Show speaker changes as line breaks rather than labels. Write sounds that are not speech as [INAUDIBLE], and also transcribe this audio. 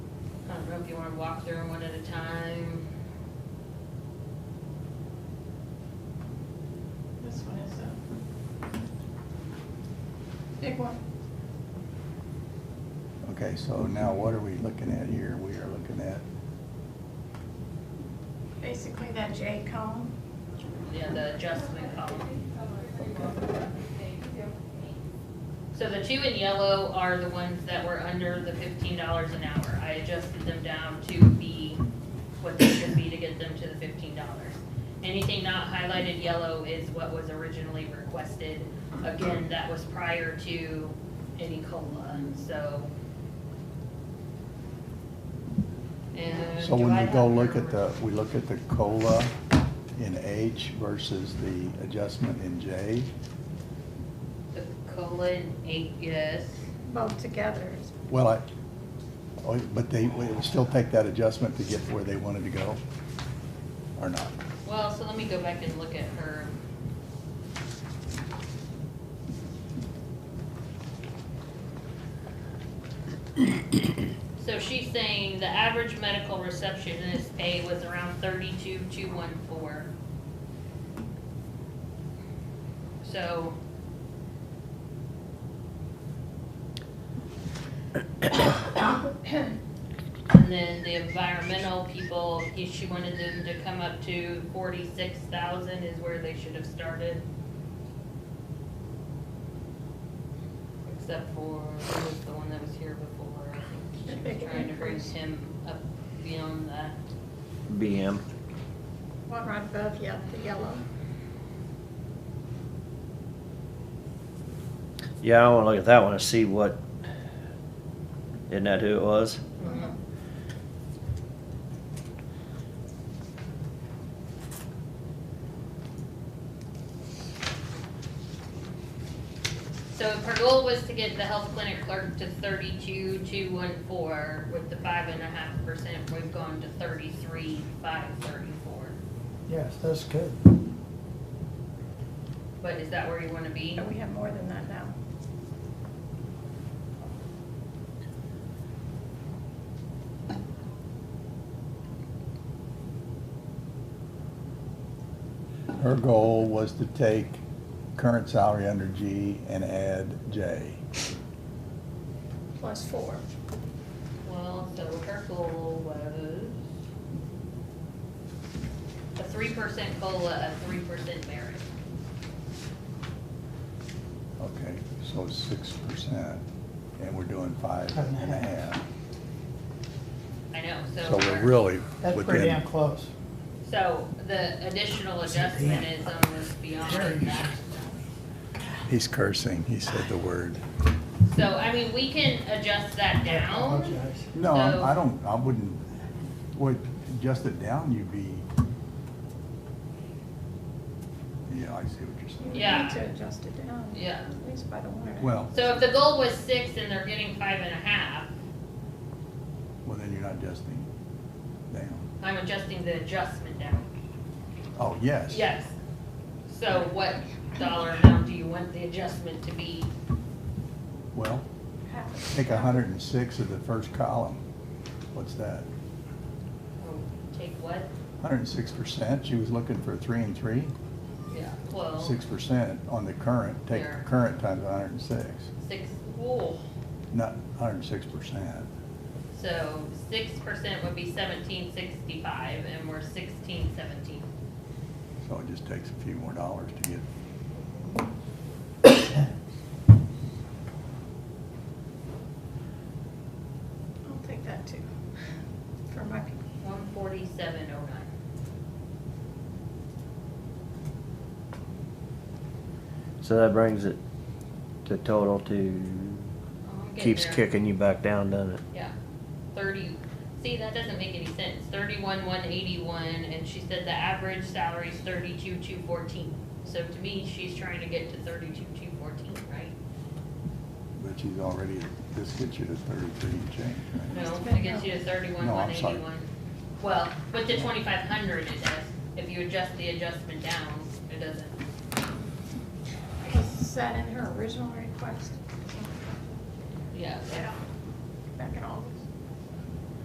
know if you wanna walk through them one at a time.
This one is uh, a big one.
Okay, so now what are we looking at here? We are looking at,
Basically, that J column,
Yeah, the adjustment column. So the two in yellow are the ones that were under the fifteen dollars an hour. I adjusted them down to be what they should be to get them to the fifteen dollars. Anything not highlighted yellow is what was originally requested. Again, that was prior to any COLA, and so. And
so
do
when
I
we go
have
look
your-
at the, we look at the COLA in H versus the adjustment in J,
The COLA in eight, yes.
both together is [COUGHS]
well, I, oh, but they, we will still take that adjustment to get where they wanted to go, or not?
Well, so let me go back and look at her. So she's saying the average medical receptionist pay was around thirty-two, two, one, four. So. And then the environmental people, if she wanted them to come up to forty-six thousand is where they should have started. Except for, who was the one that was here before? I
The
think
big
she was trying to bring
increase.
him up beyond that.
BM.
one right above ye- the yellow.
Yeah, I wanna look at that one and see what, isn't that who it was?
So if her goal was to get the health clinic clerk to thirty-two, two, one, four, with the five and a half percent, we've gone to thirty-three, five, thirty-four.
Yes, that's good.
But is that where you wanna be?
But we have more than that now.
Her goal was to take current salary under G and add J.
Plus four.
Well, so her goal was a three percent COLA, a three percent merit.
Okay, so six percent, and we're doing five and a half.
I know, so.
So we're
we're-
really
That's pretty damn
within,
close.
So the additional adjustment is almost beyond that.
he's cursing, he said the word.
So, I mean, we can adjust that down.
Apologize.
No, I'm- I
So-
don't, I wouldn't, would, adjust it down, you'd be. Yeah, I see what you're
You
saying.
would
Yeah.
need to adjust it down.
Yeah.
At least by the one.
Well,
So if the goal was six and they're getting five and a half,
well, then you're not adjusting down.
I'm adjusting the adjustment down.
Oh, yes.
Yes. So what dollar amount do you want the adjustment to be?
Well,
Half.
take a hundred and six of the first column. What's that?
Take what?
Hundred and six percent, she was looking for three and three,
Yeah. Well,
six percent on the current, take
There.
current times hundred and six,
six, whoa.
not hundred and six percent.
So six percent would be seventeen sixty-five and we're sixteen seventeen.
So it just takes a few more dollars to get
I'll take that too, for my people.
One forty-seven oh nine.
So that brings it to total to, keeps kicking you back down, doesn't it?
Yeah, thirty, see, that doesn't make any sense, thirty-one, one eighty-one, and she said the average salary is thirty-two, two fourteen. So to me, she's trying to get to thirty-two, two fourteen, right?
But she's already, this gets you to thirty-three and change, right?
No, to get you to thirty-one,
No,
one
I'm sorry.
eighty-one. Well, with the twenty-five hundred it does, if you adjust the adjustment down, it doesn't.
Was that in her original request?
Yeah,
Yeah. Back in August.